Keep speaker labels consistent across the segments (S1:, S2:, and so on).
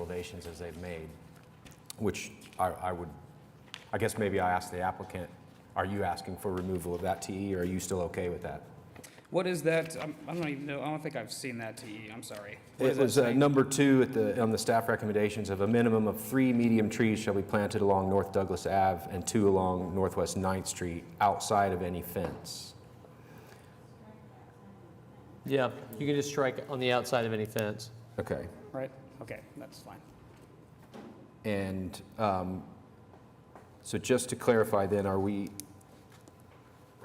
S1: recommendations as they've made, which I, I would, I guess maybe I asked the applicant, are you asking for removal of that TE, or are you still okay with that?
S2: What is that? I'm- I don't even know, I don't think I've seen that to you, I'm sorry. What
S1: It
S2: does that
S1: was uh,
S2: say?
S1: number two at the, on the staff recommendations of a minimum of three medium trees shall be planted along North Douglas Ave and two along Northwest 9th Street outside of any fence.
S3: Yeah, you can just strike on the outside of any fence.
S1: Okay.
S2: Right, okay, that's fine.
S1: And um, so just to clarify then, are we,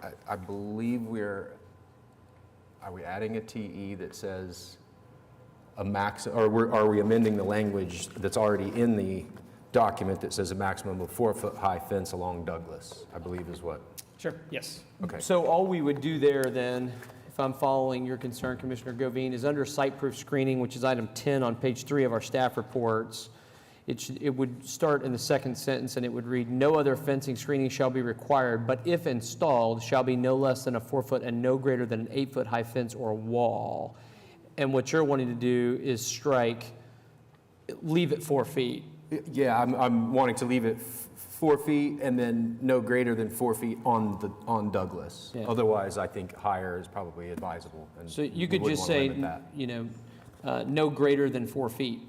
S1: I- I believe we're, are we adding a TE that says a max, or we're- are we amending the language that's already in the document that says a maximum of four-foot-high fence along Douglas, I believe is what?
S2: Sure, yes.
S1: Okay.
S3: So all we would do there then, if I'm following your concern, Commissioner Govine, is under site proof screening, which is item 10 on page three of our staff reports, it should, it would start in the second sentence and it would read, "No other fencing screening shall be required, but if installed, shall be no less than a four-foot and no greater than an eight-foot high fence or wall." And what you're wanting to do is strike, leave it four feet.
S1: Yeah, I'm, I'm wanting to leave it f- four feet and then no greater than four feet on the, on Douglas.
S3: Yeah.
S1: Otherwise, I think higher is probably advisable. and
S3: So
S1: we
S3: you could
S1: wouldn't
S3: just
S1: wanna
S3: say,
S1: limit that.
S3: you know, uh, no greater than four feet,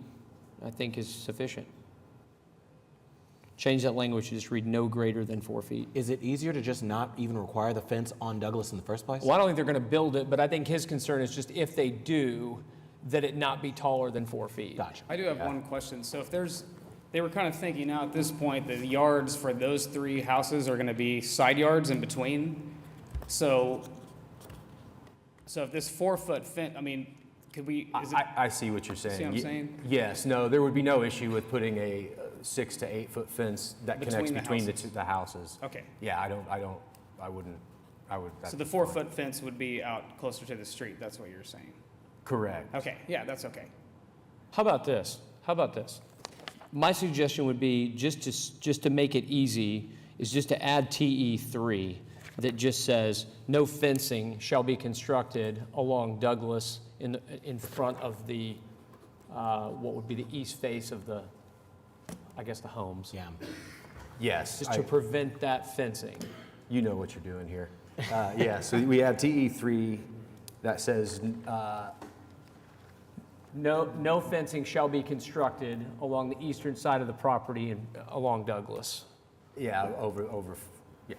S3: I think is sufficient. Change that language, to just read no greater than four feet.
S4: Is it easier to just not even require the fence on Douglas in the first place?
S3: Well, I don't think they're going to build it, but I think his concern is just if they do, that it not be taller than four feet.
S4: Gotcha.
S2: I do have one question. So if there's, they were kind of thinking now at this point, that the yards for those three houses are gonna be side yards in between. So, so if this four-foot fence, I mean, could we, is it,
S1: I, I see what you're saying.
S2: See what I'm
S1: Ye-
S2: saying?
S1: Yes, no, there would be no issue with putting a uh, six to eight foot fence that connects between
S2: Between the
S1: the
S2: houses.
S1: two, the houses.
S2: okay.
S1: Yeah, I don't, I don't, I wouldn't, I would.
S2: So
S1: that's
S2: the
S1: fine.
S2: four-foot fence would be out closer to the street, that's what you're saying?
S1: Correct.
S2: Okay, yeah, that's okay.
S5: How about this? How about this?
S3: My suggestion would be, just to, s- just to make it easy, is just to add TE three that just says, no fencing shall be constructed along Douglas in, the- in front of the, uh, what would be the east face of the, I guess, the homes.
S4: Yeah.
S1: Yes,
S3: Just to
S1: I-
S3: prevent that fencing.
S1: you know what you're doing here. Uh, Yeah, so we have TE three that says, uh,
S3: No, no fencing shall be constructed along the eastern side of the property and along Douglas.
S1: yeah, over, over, yeah.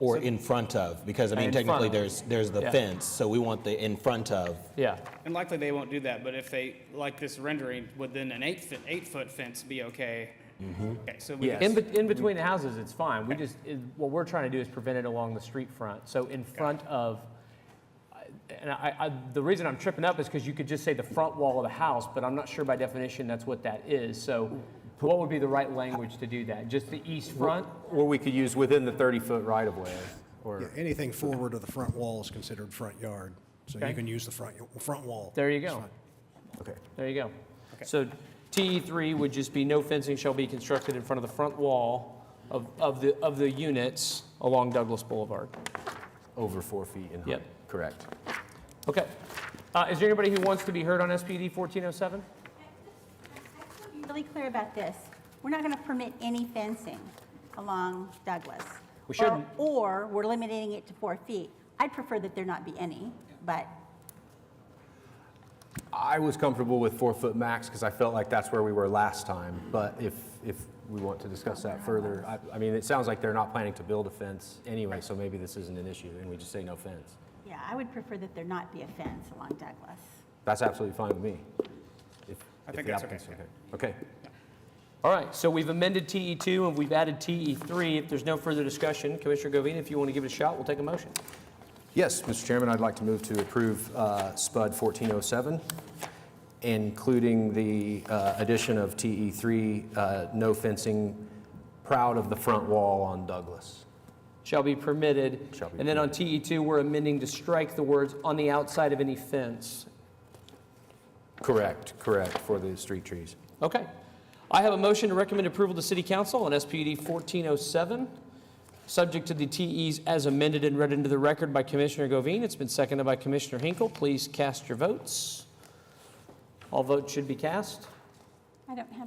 S4: Or in front of, because I mean,
S3: In front
S4: technically
S3: of.
S4: there's, there's the
S3: Yeah.
S4: fence, so we want the in front of.
S3: Yeah.
S2: And likely they won't do that, but if they, like this rendering, would then an eight-foot, eight-foot fence be okay? Okay, so we,
S1: Yeah.
S3: In, bet- in between the houses, it's fine. We just, it- what we're trying to do is prevent it along the street front. So in front of, I- and I, I, the reason I'm tripping up is because you could just say the front wall of the house, but I'm not sure by definition that's what that is. So what would be the right language to do that? Just the east front?
S1: Or we could use within the thirty foot right of way
S6: Yeah,
S1: or,
S6: anything forward of the front wall is considered front yard, so
S3: Okay.
S6: you can use the front, front wall.
S3: There you go.
S1: okay.
S3: There you go. So TE three would just be no fencing shall be constructed in front of the front wall of, of the, of the units along Douglas Boulevard.
S1: Over four feet in height.
S3: Yep.
S1: Correct.
S3: Okay. Uh, is there anybody who wants to be heard on SPD fourteen oh seven?
S7: Be really clear about this. We're not going to permit any fencing along Douglas.
S3: We
S7: Or-
S3: shouldn't.
S7: Or we're limiting it to four feet. I'd prefer that there not be any, but
S1: I was comfortable with four foot max because I felt like that's where we were last time. But if, if we want to discuss that further, I, I mean, it sounds like they're not planning to build a fence anyway, so maybe this isn't an issue and we just say no fence.
S7: yeah, I would prefer that there not be a fence along Douglas.
S1: That's absolutely fine with me. If-
S2: I
S1: if
S2: think
S1: the
S2: that's
S1: applicant's
S2: okay,
S1: Okay,
S3: All right, so we've amended TE two and we've added TE three. If there's no further discussion, Commissioner Govine, if you want to give it a shot, we'll take a motion.
S1: Yes, Mr. Chairman, I'd like to move to approve uh, SPUD 1407, including the uh, addition of TE3, uh, no fencing, proud of the front wall on Douglas.
S3: Shall be permitted.
S1: Shall be
S3: And then on TE two, we're amending to strike the words on the outside of any fence.
S1: Correct, correct, for the street trees.
S3: Okay. I have a motion to recommend approval to City Council on SPD 1407, subject to the TEs as amended and read into the record by Commissioner Govine. It's been seconded by Commissioner Hinkle. Please cast your votes. All votes should be cast.
S7: I don't have